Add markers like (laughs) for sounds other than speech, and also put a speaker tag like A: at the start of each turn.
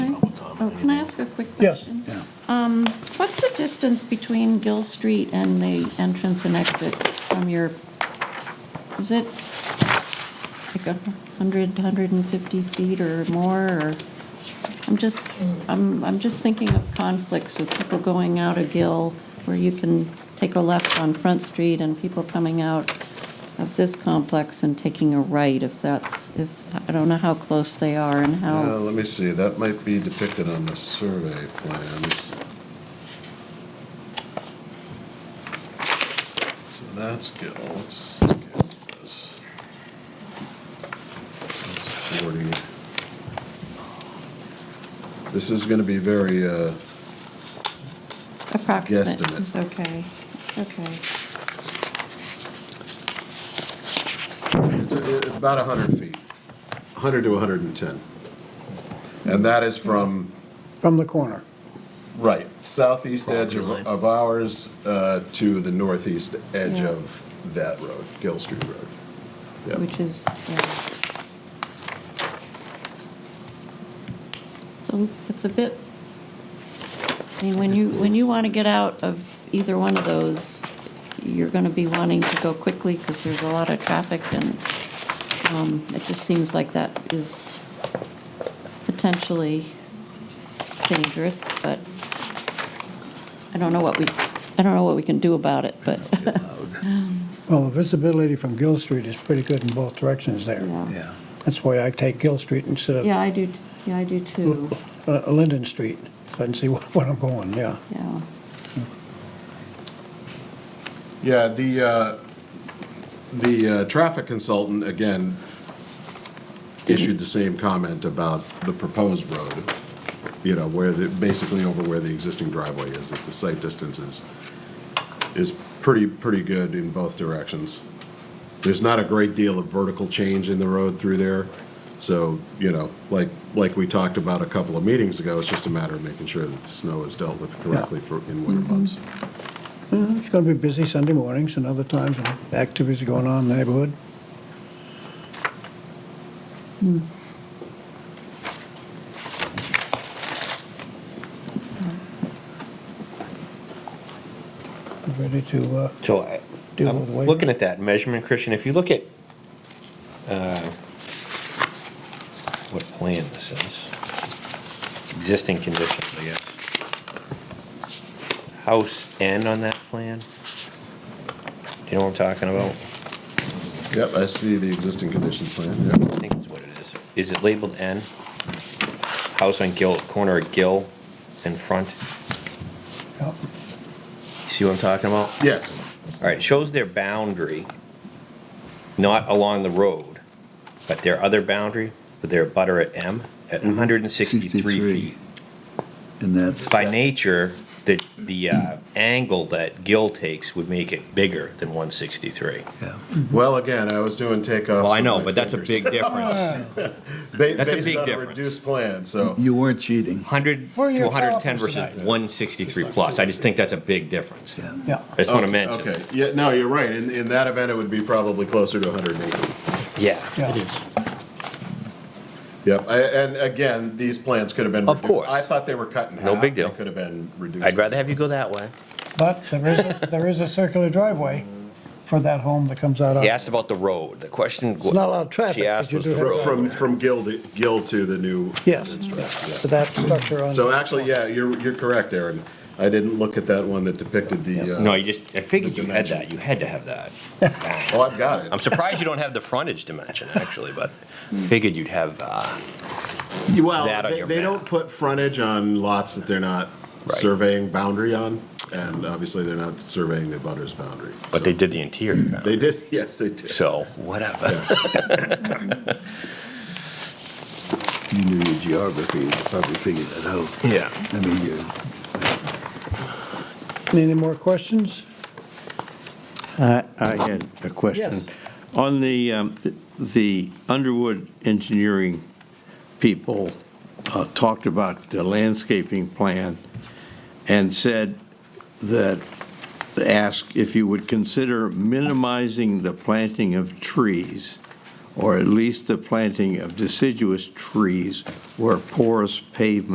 A: Oh, can I ask a quick
B: Yes,
A: question? Um,
B: yeah.
A: What's the distance between Gill Street and the entrance and exit from your, is it like a hundred, hundred and fifty feet or more, or? I'm just, I'm, I'm just thinking of conflicts with people going out of Gill, where you can take a left on Front Street, and people coming out of this complex and taking a right, if that's, if, I don't know how close they are and how.
C: Uh, Let me see, that might be depicted on the survey plans. So that's good, let's get this. That's 40. This is gonna be very, uh,
A: Approximate
C: Guesstimate.
A: is okay, okay.
C: it's uh, about 100 feet, 100 to 110. And that is from
B: from the corner.
C: Right, southeast edge
D: Property
C: of,
D: line.
C: of ours uh, to the northeast edge
A: Yeah.
C: of that road, Gill Street Road. Yep.
A: which is, yeah. So it's a bit, I mean, when you, when you want to get out of either one of those, you're going to be wanting to go quickly because there's a lot of traffic and um, it just seems like that is potentially dangerous, but I don't know what we, I don't know what we can do about it, but,
B: Well, the visibility from Gill Street is pretty good in both directions there.
A: yeah.
D: Yeah.
B: That's why I take Gill Street instead of
A: Yeah, I do, t- yeah, I do too.
B: uh, Linden Street, so I can see (laughs) wh- where I'm going, yeah.
A: Yeah,
C: Yeah, the, uh, the uh, traffic consultant, again, issued the same comment about the proposed road, you know, where the, basically over where the existing driveway is, that the site distance is, is pretty, pretty good in both directions. There's not a great deal of vertical change in the road through there, so, you know, like, like we talked about a couple of meetings ago, it's just a matter of making sure that the snow is dealt with correctly for, in winter months.
B: Mm, It's going to be busy Sunday mornings and other times, and activities going on in the neighborhood.
A: Hmm.
B: Ready to, uh,
E: So I-
B: Do it the way-
E: I'm looking at that measurement, Christian, if you look at, uh, what plan this is, existing conditions, I guess. House N on that plan? Do you know what I'm talking about?
C: Yep, I see the existing conditions plan, yep.
E: I think that's what it is. Is it labeled N? House on Gill, corner of Gill and front.
B: yeah.
E: See what I'm talking about?
C: Yes,
E: All right, it shows their boundary, not along the road, but their other boundary, but their butter at M,
B: Mm-hmm.
E: at 163 feet.
D: And that's.
E: By nature, the, the uh, angle that Gill takes would make it bigger than 163.
D: Yeah.
C: well, again, I was doing takeoffs.
E: Well, I
C: with
E: know,
C: my
E: but that's a big
C: fingers.
E: difference.
C: (laughs) Ba-
E: that's a
C: Based
E: big
C: on a
E: difference.
C: reduced plan, so,
D: You weren't cheating.
E: 100
B: Where are
E: to
B: your
E: 110
B: calipers
E: versus
B: tonight?
E: 163 plus. I just think that's a big difference.
D: Yeah.
B: Yeah.
E: I just want to mention.
C: okay, yeah, no, you're right, in, in that event, it would be probably closer to 180.
E: Yeah.
B: Yeah.
C: Yep, I- and again, these plans could have been.
E: Of
C: redu-
E: course.
C: I thought they were cut in half.
E: No big deal.
C: They could have been reduced.
E: I'd rather have you go that way.
B: But there is, a- there is a circular driveway for that home that comes out of.
E: He asked about the road. The question.
B: It's not a lot of traffic,
E: She
B: but
E: asked
B: you
E: was
B: do
E: the
B: have
C: Fro-
E: road.
C: From, from Gill to, Gill to the new.
B: Yes.
C: Yeah.
B: To that structure on.
C: So actually, yeah, you're, you're correct, Aaron. I didn't look at that one that depicted the. uh,
E: No, you just, I figured
C: The
E: you had
C: dimension.
E: that, you had to have that.
C: Oh, I've got it.
E: I'm surprised you don't have the frontage dimension, actually, but figured you'd have, uh,
C: (laughs) Well,
E: that on
C: they,
E: your
C: they
E: map.
C: don't put frontage on lots that they're not
E: Right.
C: surveying boundary on, and obviously they're not surveying the butter's boundary.
E: but they did the interior,
C: They did, (laughs) yes, they did.
E: so whatever.
D: You knew your geography, you probably figured that out.
E: Yeah.
D: I mean, you,
B: Any more questions?
F: I I had a question. On the, um, th- the Underwood Engineering people uh, talked about the landscaping plan and said that, asked if you would consider minimizing the planting of trees, or at least the planting of deciduous trees where porous pavement